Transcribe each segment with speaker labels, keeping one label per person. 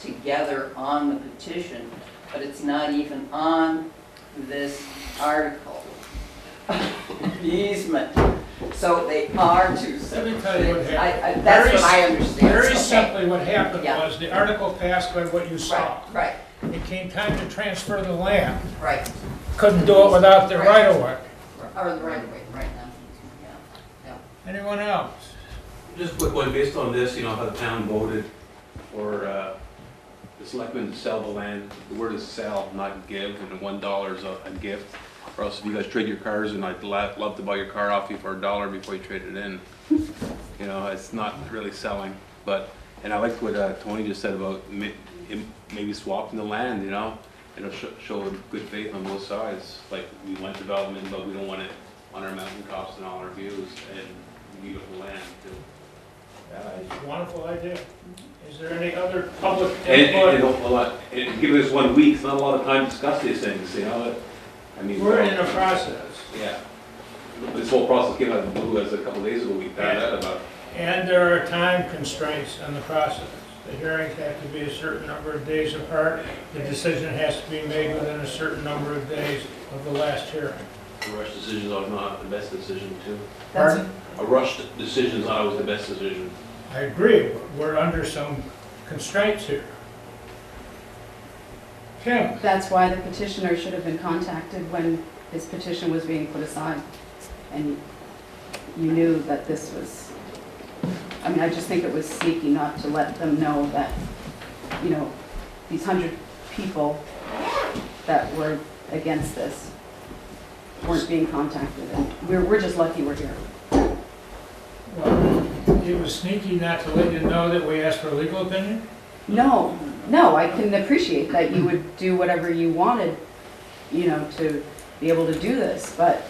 Speaker 1: together on the petition, but it's not even on this article. Easement, so they are two
Speaker 2: Let me
Speaker 1: separate
Speaker 2: tell you what
Speaker 1: things. I, I,
Speaker 2: happened.
Speaker 1: that's what I
Speaker 2: Very s-
Speaker 1: understand.
Speaker 2: Very
Speaker 1: Okay.
Speaker 2: simply, what happened
Speaker 1: Yeah.
Speaker 2: was, the article passed by what you saw.
Speaker 1: Right, right,
Speaker 2: It came time to transfer the land,
Speaker 1: right,
Speaker 2: couldn't do it without the right of way.
Speaker 1: or the right way, right now, yeah.
Speaker 2: Anyone else?
Speaker 3: Just a quick one, based on this, you know, how the town voted for uh, the selectmen to sell the land. The word is sell, not give, and the one dollar is a a gift. Or else if you guys trade your cars, and I'd la- love to buy your car off you for a dollar before you trade it in. You know, it's not really selling, but, and I liked what uh, Tony just said about ma- im- maybe swapping the land, you know? It'll sho- show good faith on both sides, like, we want development, but we don't want it on our mountain tops and all our views, and beautiful land, too.
Speaker 2: Yeah, it's a wonderful idea. Is there any other public
Speaker 3: And, and,
Speaker 2: input?
Speaker 3: a lot, and give us one week, it's not a lot of time to discuss these things, you know, that- I mean.
Speaker 2: We're in a process,
Speaker 3: Yeah. This whole process came out of the blue as a couple days ago, we found out about.
Speaker 2: and there are time constraints on the process. The hearings have to be a certain number of days apart, the decision has to be made within a certain number of days of the last hearing.
Speaker 3: A rush decision is not the best decision too.
Speaker 2: Pardon?
Speaker 3: A rush decision is not always the best decision.
Speaker 2: I agree, we're under some constraints here. Kim,
Speaker 4: That's why the petitioner should have been contacted when his petition was being put aside. And you knew that this was, I mean, I just think it was sneaky not to let them know that, you know, these hundred people that were against this weren't being contacted. And we're, we're just lucky we're here.
Speaker 2: well, it was sneaky not to let you know that we asked for a legal opinion?
Speaker 4: No, no, I can appreciate that you would do whatever you wanted, you know, to be able to do this, but,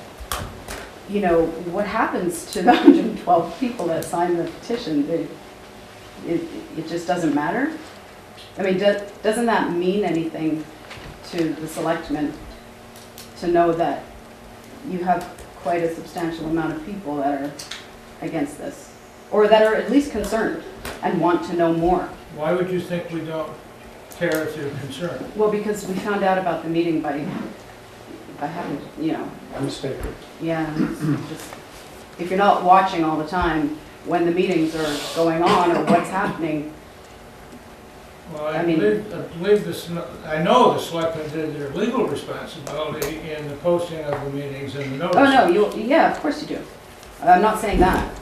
Speaker 4: you know, what happens to the 112 people that signed the petition? They- It, it just doesn't matter? I mean, do- doesn't that mean anything to the selectmen to know that you have quite a substantial amount of people that are against this? Or that are at least concerned and want to know more?
Speaker 2: Why would you think we don't care if you're concerned?
Speaker 4: Well, because we found out about the meeting by, by having, you know,
Speaker 2: Newspaper.
Speaker 4: yeah, it's just, if you're not watching all the time when the meetings are going on or what's happening,
Speaker 2: Well, I
Speaker 4: I mean-
Speaker 2: believe, I believe the, sm- I know the selectmen did their legal responsibility in the posting of the meetings and the notice.
Speaker 4: oh, no, you, yeah, of course you do. I'm not saying that.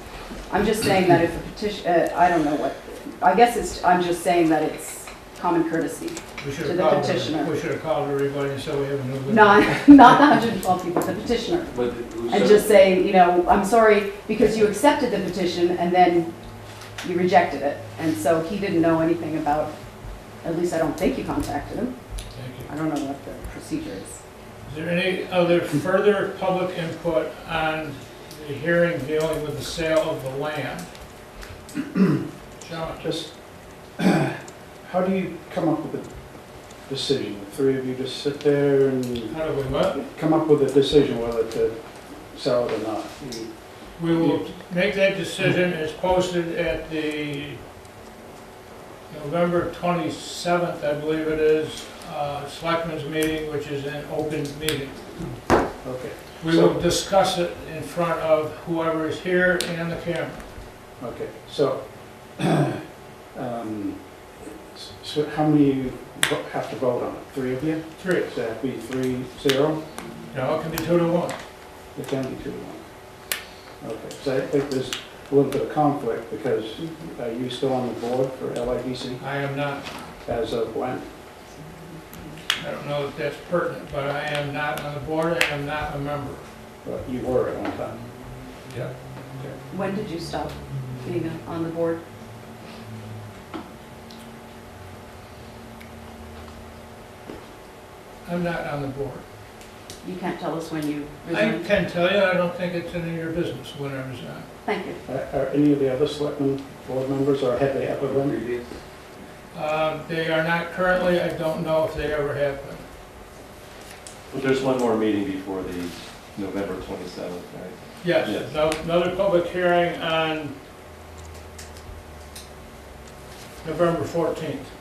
Speaker 4: I'm just saying that if a petition, uh, I don't know what, I guess it's, I'm just saying that it's common courtesy.
Speaker 2: We should
Speaker 4: to
Speaker 2: have
Speaker 4: the
Speaker 2: called,
Speaker 4: petitioner.
Speaker 2: we should have called everybody and said we have a new. legal-
Speaker 4: Not, not the 112 people, the petitioner.
Speaker 3: But it was-
Speaker 4: And just say, you know, I'm sorry, because you accepted the petition and then you rejected it. And so he didn't know anything about, at least I don't think you contacted him.
Speaker 2: Thank you.
Speaker 4: I don't know what the procedure is.
Speaker 2: Is there any other further public input on the hearing dealing with the sale of the land? John,
Speaker 5: Just, how do you come up with a decision? The three of you just sit there and
Speaker 2: how do we vote?
Speaker 5: come up with a decision whether to sell it or not? You-
Speaker 2: We will make that decision, it's posted at the November 27th, I believe it is, uh, Selectmen's meeting, which is an open meeting.
Speaker 5: Okay,
Speaker 2: We will discuss it in front of whoever is here and the camera.
Speaker 5: okay, so, um, s- so how many you vo- have to vote on it? Three of you?
Speaker 2: Three,
Speaker 5: Does that be three, zero?
Speaker 2: no, it can be two to one.
Speaker 5: It can be two to one. Okay, so I think there's a little bit of conflict because are you still on the board for LIDC
Speaker 2: I am not
Speaker 5: as of when?
Speaker 2: I don't know if that's pertinent, but I am not on the board, I am not a member.
Speaker 5: Well, You were at one time.
Speaker 2: Yeah.
Speaker 4: When did you stop being on the board?
Speaker 2: I'm not on the board.
Speaker 4: You can't tell us when you
Speaker 2: I
Speaker 4: resigned.
Speaker 2: can tell you, I don't think it's any of your business when I was on.
Speaker 4: Thank you.
Speaker 5: Are are any of the other selectmen board members, or have they ever been?
Speaker 2: Uh, They are not currently, I don't know if they ever have been.
Speaker 6: But there's one more meeting before the November 27th, right?
Speaker 2: Yes,
Speaker 6: Yes.
Speaker 2: no- another public hearing on November 14th.